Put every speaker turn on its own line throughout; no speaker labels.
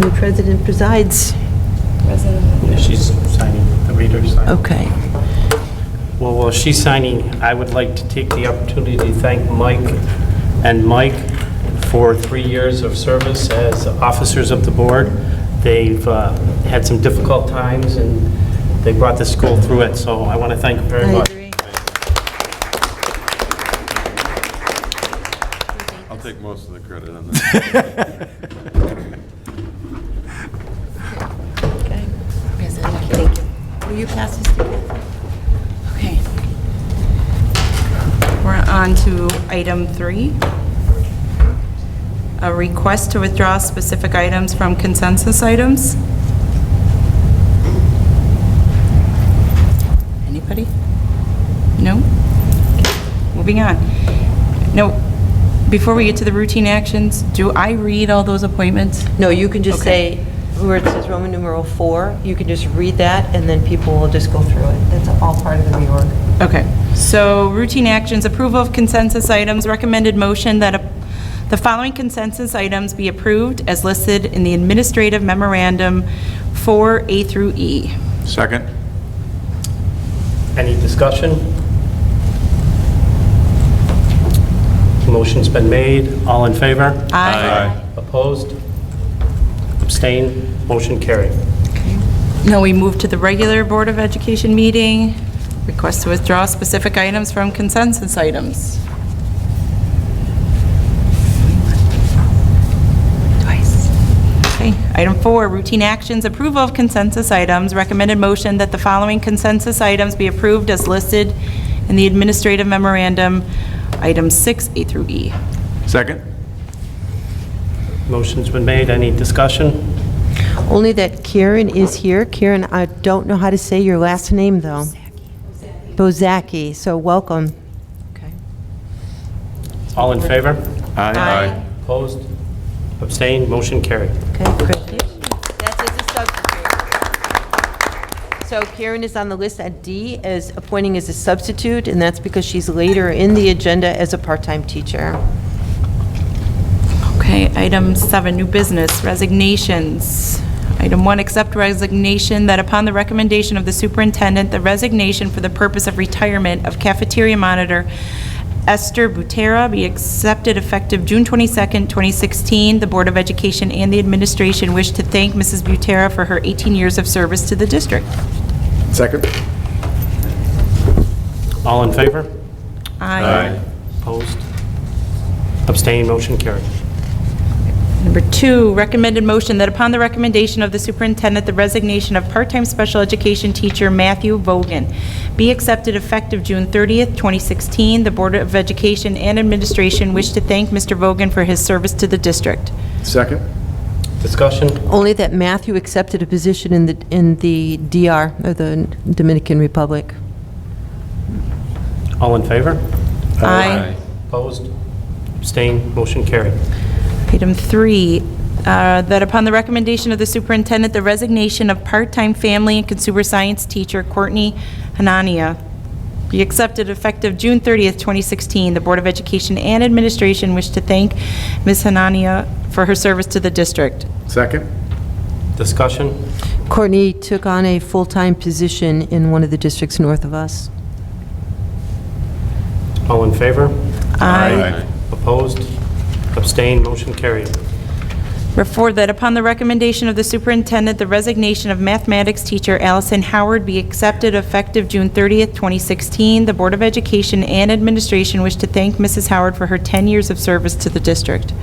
The president presides.
Yeah, She's signing, the reader's signing.
Okay.
Well, while she's signing, I would like to take the opportunity to thank Mike and Mike for three years of service as officers of the board. They've uh, had some difficult times, and they brought the school through it, so I want to thank them very
I
much.
agree.
I'll take most of the credit on that.
Okay. Thank you. Will you pass this to Kathy?
Okay. We're on to item three. A request to withdraw specific items from consensus items. Anybody? No? Moving on. No, before we get to the routine actions, do I read all those appointments?
No, you can just
Okay.
say, where it says Roman numeral four, you can just read that, and then people will just go through it. That's all part of the reorg.
Okay, so routine actions, approval of consensus items, recommended motion that a- the following consensus items be approved as listed in the administrative memorandum 4A through E.
Second?
Any discussion? Motion's been made. All in favor? Opposed? Abstain? Motion carried.
Now we move to the regular Board of Education meeting, request to withdraw specific items from consensus items. Twice. Okay, item four, routine actions, approval of consensus items, recommended motion that the following consensus items be approved as listed in the administrative memorandum, items six, A through E.
Second?
Motion's been made. Any discussion?
Only that Karen is here. Karen, I don't know how to say your last name, though. Bozaki, so welcome.
All in favor?
Aye.
Opposed? Abstained? Motion carried.
Okay, congratulations. That's as a substitute. So Karen is on the list at D as appointing as a substitute, and that's because she's later in the agenda as a part-time teacher.
Okay, item seven, new business, resignations. Item one, accept resignation that upon the recommendation of the superintendent, the resignation for the purpose of retirement of cafeteria monitor Esther Butera be accepted effective June 22nd, 2016. The Board of Education and the administration wish to thank Mrs. Butera for her 18 years of service to the district.
Second?
All in favor?
Aye.
Opposed? Abstained? Motion carried.
Number two, recommended motion that upon the recommendation of the superintendent, the resignation of part-time special education teacher Matthew Vogan be accepted effective June 30th, 2016. The Board of Education and Administration wish to thank Mr. Vogan for his service to the district.
Second?
Discussion?
Only that Matthew accepted a position in the, in the DR, or the Dominican Republic.
All in favor?
Aye.
Opposed? Abstained? Motion carried.
Item three, uh, that upon the recommendation of the superintendent, the resignation of part-time family and consumer science teacher Courtney Hanania be accepted effective June 30th, 2016. The Board of Education and Administration wish to thank Ms. Hanania for her service to the district.
Second?
Discussion?
Courtney took on a full-time position in one of the districts north of us.
All in favor?
Aye.
Opposed? Abstained? Motion carried.
Refer that upon the recommendation of the superintendent, the resignation of mathematics teacher Allison Howard be accepted effective June 30th, 2016. The Board of Education and Administration wish to thank Mrs. Howard for her 10 years of service to the district.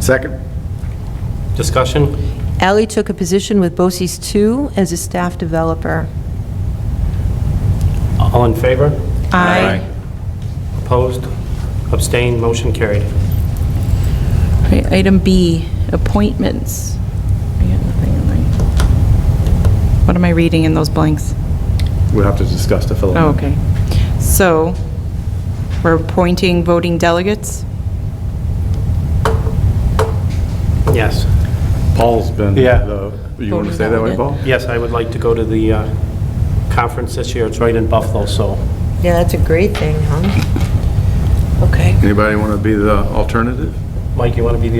Second?
Discussion?
Ally took a position with BOCES 2 as a staff developer.
All in favor?
Aye.
Opposed? Abstained? Motion carried.
Okay, Item B, appointments. I got nothing in my- What am I reading in those blanks?
We'll have to discuss the fill.
Oh, okay. So, we're appointing voting delegates?
Yes.
Paul's been,
Yeah.
the- you want to say that way, Paul?
Yes, I would like to go to the uh, conference this year. It's right in Buffalo, so
Yeah, that's a great thing, huh?
Anybody want to be the alternative?
Mike, you want to be the